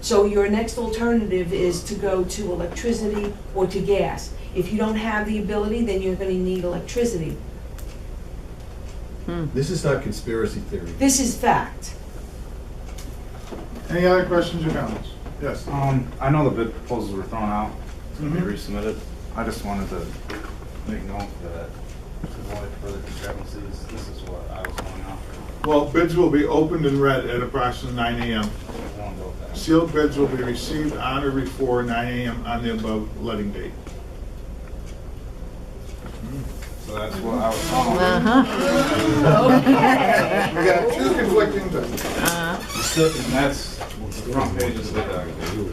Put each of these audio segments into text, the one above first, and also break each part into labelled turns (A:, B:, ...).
A: So your next alternative is to go to electricity or to gas. If you don't have the ability, then you're gonna need electricity.
B: This is not conspiracy theory.
A: This is fact.
C: Any other questions or comments? Yes.
D: Um, I know the bid proposals were thrown out, to be
C: Mhm.
D: resubmitted. I just wanted to make note that to avoid further discrepancies, this is what I was going after.
C: Well, bids will be opened and read at approximately 9 AM.
D: I wanna go with that.
C: Sealed bids will be received on or before 9 AM on the above letting date.
D: So that's what I was.
C: We got two conflicting things.
D: Uh-huh. And that's the front page of the document.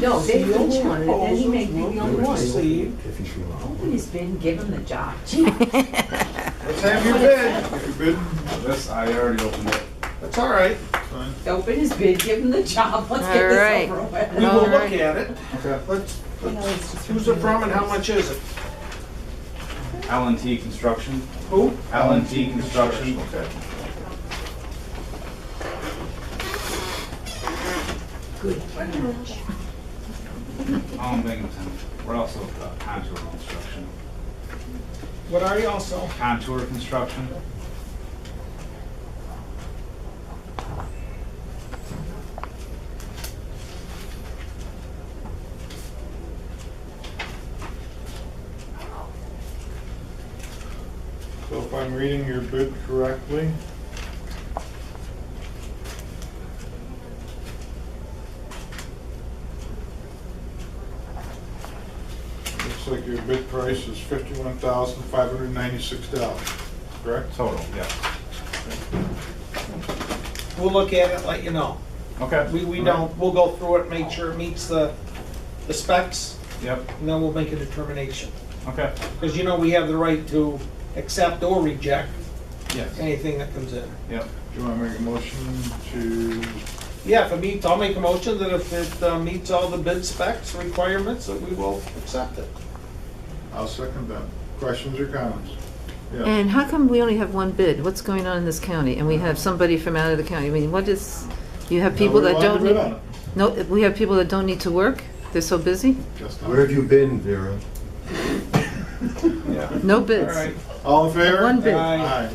A: No, they the only one, and then he may be the only one.
E: Nobody's been given the job.
C: Let's have your bid. If you bid,
D: This, I already opened it.
C: that's all right. It's fine.
E: Open has been given the job. Let's get this over with.
F: We will look at it.
D: Okay.
F: Let's, let's- who's it from and how much is it?
D: Allen T Construction,
F: Who?
D: Allen T Construction.
C: Okay.
D: Allen Binghamton. We're also uh, Contour Construction.
F: What are you also?
D: Contour Construction.
C: So if I'm reading your bid correctly, looks like your bid price is fifty-one thousand five hundred ninety-six dollars, correct?
D: Total, yeah.
F: We'll look at it, let you know.
D: Okay.
F: We, we don't, we'll go through it, make sure it meets the, the specs,
D: Yep,
F: and then we'll make a determination.
D: okay.
F: Because you know we have the right to accept or reject
D: Yes,
F: anything that comes in.
D: yep.
C: Do you want to make a motion to,
F: Yeah, if it meets, I'll make a motion that if it uh, meets all the bid specs requirements, that we will accept it.
C: I'll second that. Questions or comments? Yes.
G: And how come we only have one bid? What's going on in this county? And we have somebody from out of the county. I mean, what is, you have people
C: Now,
G: that
C: we want
G: don't,
C: to bid on
G: need- no, we have people that don't need to work? They're so busy?
C: it. Just
B: Where
C: not.
B: have you been, Vera?
D: Yeah.
G: No
F: All
G: bids.
F: right,
C: All in favor?
G: One bid.
C: Aye.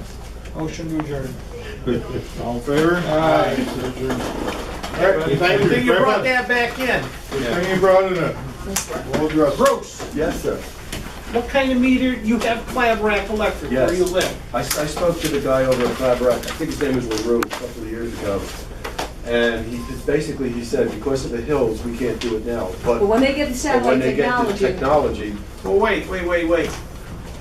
F: motion to adjourn.
C: All in favor?
F: Aye.
C: So adjourned. All right, thank you very much.
F: that back in.
C: Good thing you brought it up. Well dressed.
F: Bruce,
H: Yes, sir.
F: what kind of meter, you have Clav Rack Electric where
H: Yes.
F: you live?
H: I, I spoke to the guy over at Clap Rock, I think his name is LaRue, a couple of years ago. And he, basically, he said, because of the hills, we can't do it now, but
A: But when they get the
H: but
A: satellite
H: when they get the
A: technology.
H: technology,
F: Well, wait, wait, wait, wait.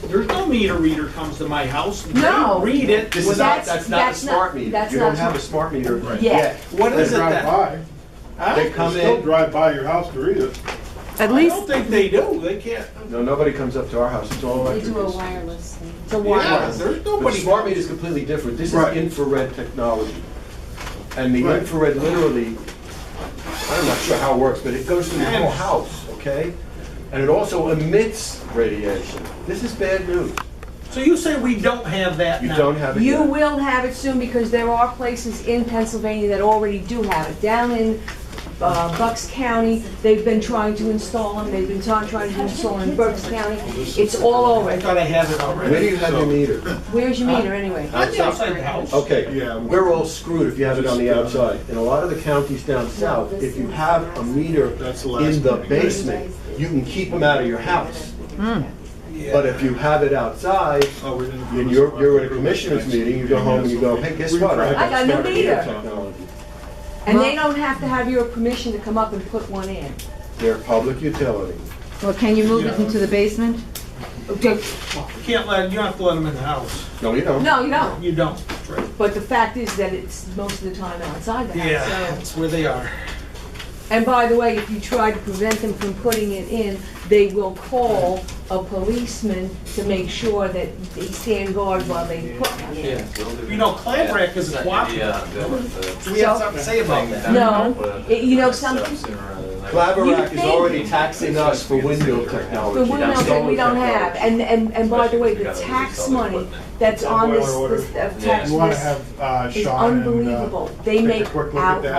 F: There's no meter reader comes to my house. and they
A: No.
F: Read it.
H: this is not,
A: That's-
H: that's not a
A: that's not-
H: smart meter.
A: that's
H: You
A: not
H: don't have a
A: smart.
H: smart meter
C: Right.
A: Yeah,
H: yet.
F: What is it
C: Drive
F: then?
C: by.
H: They
F: Huh?
H: come
C: Still
H: in,
C: drive by your house to read it.
G: At
F: I
G: least,
F: don't think they do. They can't.
H: no, nobody comes up to our house, it's all
I: They
H: electric.
I: do a wireless thing.
A: it's a
F: Yeah,
A: wireless.
F: there's
H: But
F: nobody.
H: smart meter is completely different, this is
C: Right.
H: infrared technology. And the
C: Right.
H: infrared literally, I'm not sure how it works, but it goes through the whole house, okay? And it also emits radiation. This is bad news.
F: So you say we don't have that
H: You
F: now?
H: don't have it
A: You
H: yet.
A: will have it soon because there are places in Pennsylvania that already do have it. Down in uh, Bucks County, they've been trying to install them, they've been trying trying to install them in Berks County. It's all
F: I
A: over.
F: thought I had it
H: Where do
F: already.
H: you have your meter?
A: Where's your meter anyway?
F: On the outside of the house.
H: Okay,
C: Yeah.
H: we're all screwed if you have it on the
C: uh,
H: outside. In a lot of the counties down south, if you have a meter
C: That's the last
H: in the
C: meeting.
H: basement, you can keep them out of your house.
F: Yeah.
H: But if you have it outside,
C: Oh, we didn't-
H: And you're, you're at a commissioners meeting, you go home and you go, hey, guess what?
A: I got a new
H: smart meter
A: meter."
H: technology."
A: And they don't have to have your permission to come up and put one in.
H: They're public utility.
G: well, can you move it into the basement?
A: Okay,
F: You can't let, you don't have to let them in the house.
H: No, you don't.
A: No, you don't,
F: You don't.
A: but the fact is that it's most of the time outside the house, so.
F: Yeah, that's where they are.
A: And by the way, if you try to prevent them from putting it in, they will call a policeman to make sure that they stand guard while they put it in.
F: You know, Clav Rack is a cooperative. Do we have something to say about that?
A: No, it- you know something,
H: Claverack
A: You
H: is
A: think-
H: already taxing us for window
A: the
H: technology.
A: windows that we don't have, and, and, and by the way, the tax money that's on this,
C: Boiler order.
A: this, uh, tax
C: You wanna
A: list
C: have uh,
A: is
C: Sean and, uh,
A: unbelievable. They
C: take a
A: make
C: quick look at
A: out
C: that.